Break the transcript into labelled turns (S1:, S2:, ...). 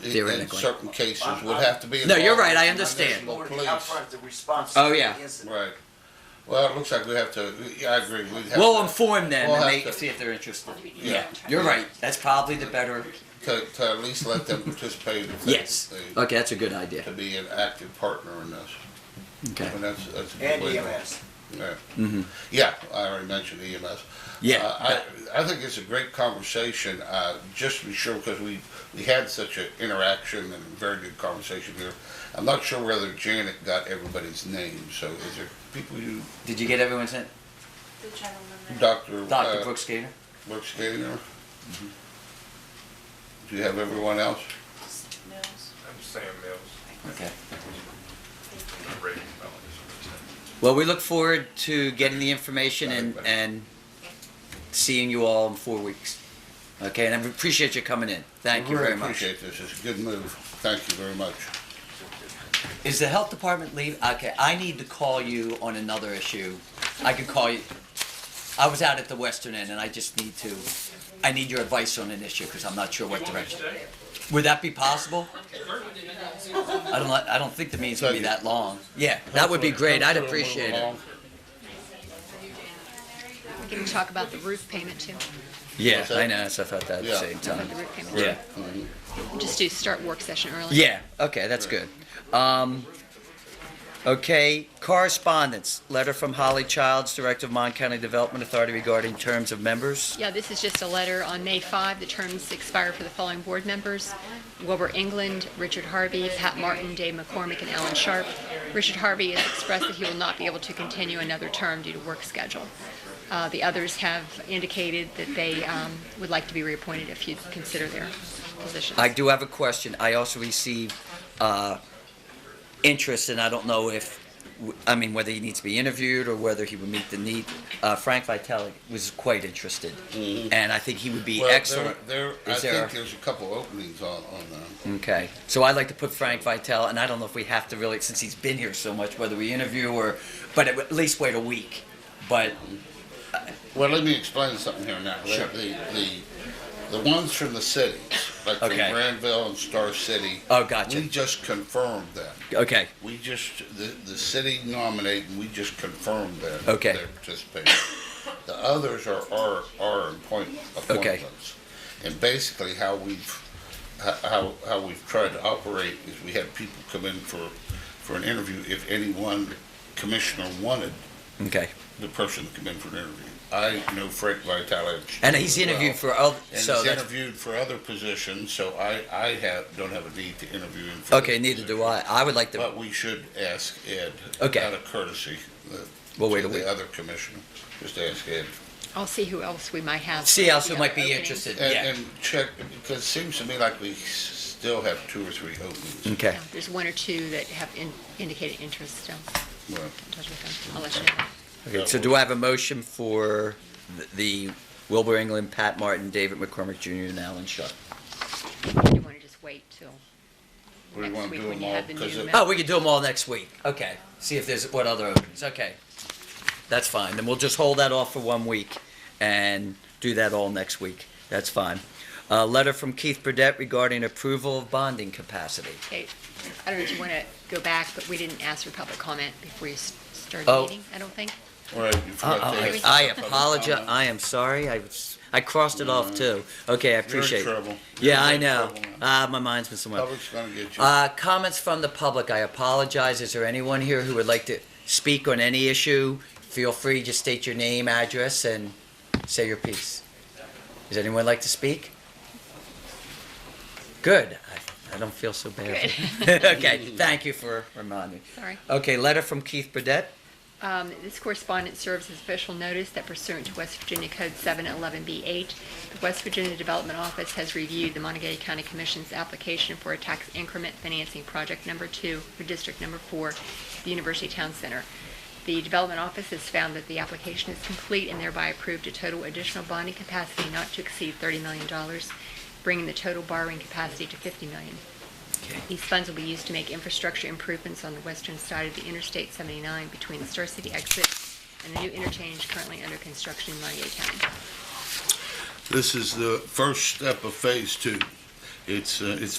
S1: in- in
S2: Theoretically.
S1: certain cases would have to be.
S2: No, you're
S1: involved
S2: right, I
S1: in
S2: understand.
S1: municipal
S3: Or the
S1: police.
S3: upfront, the response.
S2: Oh,
S3: to the
S2: yeah.
S3: incident.
S1: Right. Well, it looks like we have to, yeah, I agree. We'd have
S2: We'll um,
S1: to-
S2: inform them
S1: We'll
S2: and
S1: have
S2: they
S1: to-
S2: see if they're interested.
S1: Yeah.
S2: Yeah, you're right. That's probably the better.
S1: To, to at least let them participate if they-
S2: Yes.
S1: they,
S2: Okay, that's a good idea.
S1: to be an active partner in this.
S2: Okay.
S1: And that's, that's. a
S3: And
S1: good
S3: E
S1: way to-
S3: EMS.
S1: Yeah.
S2: Mhm.
S1: Yeah, I already mentioned EMS. Uh,
S2: Yeah.
S1: I, I think it's a great conversation, uh, just to be sure, because we, we had such an interaction and a very good conversation here. I'm not sure whether Janet got everybody's name, so is there people you,
S2: Did you get everyone's in?
S4: The gentleman there.
S1: Dr.
S2: Dr.
S1: uh,
S2: Brooks Gator?
S1: Brooks Gaynor? Do you have everyone else?
S4: Mills.
S5: I'm Sam Mills,
S2: Okay.
S4: Thank you.
S5: Ray Melons.
S2: Well, we look forward to getting the information and, and seeing you all in four weeks. Okay, and I appreciate you coming in. Thank you very much.
S1: Appreciate this, it's a good move, thank you very much.
S2: Is the health department leave? Okay, I need to call you on another issue. I could call you. I was out at the western end and I just need to, I need your advice on an issue because I'm not sure what direction. Would that be possible? I don't, li- I don't think the meetings would be that long. Yeah, that would be great. I'd appreciate it.
S6: We can talk about the roof payment too,
S2: Yeah, I know, so I thought that at the
S1: Yeah.
S2: same time.
S6: the roof payment.
S2: Yeah,
S6: Just to start work session early.
S2: yeah, okay, that's good. Um, okay, correspondence, letter from Holly Childs, Director of Mon County Development Authority regarding terms of members.
S6: Yeah, this is just a letter on May 5. The terms expire for the following board members: Wilbur England, Richard Harvey, Pat Martin, Dave McCormick, and Alan Sharp. Richard Harvey has expressed that he will not be able to continue another term due to work schedule. Uh, The others have indicated that they um, would like to be reappointed if you'd consider their positions.
S2: I do have a question. I also received uh, interest, and I don't know if, I mean, whether he needs to be interviewed or whether he would meet the need. Uh, Frank Vitale was quite interested, and I think he would be
S1: Mm-hmm. Well, there-
S2: excellent.
S1: There, I
S2: Is there-
S1: think there's a couple openings on, on uh, them.
S2: Okay, so I'd like to put Frank Vitale, and I don't know if we have to really, since he's been here so much, whether we interview or, but at least wait a week. But
S1: Well, let me explain something here now. The-
S2: Sure.
S1: The, the, the ones from the cities, like from
S2: Okay.
S1: Granville and Star City.
S2: Oh, gotcha.
S1: We just confirmed them.
S2: okay,
S1: We just, the, the city nominate and we just confirmed them.
S2: Okay.
S1: Their participation. The others are our, our appoint- appointments. And basically how we've, ho- how, how we've tried to operate is we had people come in for, for an interview if any one commissioner wanted
S2: okay,
S1: the person to come in for an interview. I know Frank Vitale.
S2: and he's interviewed for other.
S1: And
S2: so
S1: he's
S2: that's,
S1: interviewed for other positions, so I, I have, don't have a need to interview him. For
S2: okay,
S1: this
S2: neither do
S1: position.
S2: I. I would like to.
S1: But we should ask Ed.
S2: Okay.
S1: Out of courtesy. the-
S2: We'll wait
S1: to
S2: a week.
S1: The other commissioner, just ask Ed.
S6: I'll see who else we might have.
S2: see else who
S6: Yeah,
S2: might be
S6: openings.
S2: interested.
S1: And,
S2: yeah.
S1: and check, because it seems to me like we s- still have two or three openings.
S2: okay.
S6: Yeah, There's one or two that have in- indicated interest still.
S2: Hmm.
S1: Well,
S6: in touch with them. I'll let you know.
S2: Okay, so do I have a motion for th- the Wilbur England, Pat Martin, David McCormick Jr., and Alan Sharp?
S6: You want to just wait till
S1: What do you
S6: next
S1: want to
S6: week
S1: do
S6: when
S1: them
S6: you
S1: all?
S6: have the
S1: 'Cause
S6: new
S1: it-
S6: map?
S2: Oh, we can do them all next week. Okay, see if there's, what other openings, okay. That's fine, then we'll just hold that off for one week and do that all next week. That's fine. A letter from Keith Burdette regarding approval of bonding capacity.
S6: Okay. I don't know if you want to go back, but we didn't ask for public comment before you s- started
S2: Oh.
S6: the meeting, I don't think.
S1: All right, you forgot to
S2: Uh-oh,
S1: ask
S2: Uh, I
S1: about
S2: apologize,
S1: the-
S2: I am sorry, I, was- I crossed it off too. Okay, I
S1: You're in
S2: appreciate it.
S1: trouble.
S2: Yeah,
S1: You're
S2: I
S1: in
S2: know.
S1: trouble now.
S2: Ah, my mind's been somewhere.
S1: Public's gonna get you.
S2: Uh, comments from the public. I apologize. Is there anyone here who would like to speak on any issue? Feel free, just state your name, address, and say your piece. Does anyone like to speak? Good. I, I don't feel so bad. okay. Thank you for reminding me.
S6: Sorry.
S2: Okay. Letter from Keith Burdett.
S6: Um, This correspondence serves as official notice that pursuant to West Virginia Code 711B8, the West Virginia Development Office has reviewed the Montague County Commission's application for a tax increment financing project number two for District Number Four, the University Town Center. The Development Office has found that the application is complete and thereby approved a total additional bonding capacity not to exceed $30 million, bringing the total borrowing capacity to $50 million. These funds will be used to make infrastructure improvements on the western side of the Interstate 79 between the Star City exit and the new interchange currently under construction in Montague County.
S1: This is the first step of phase two. It's, uh, it's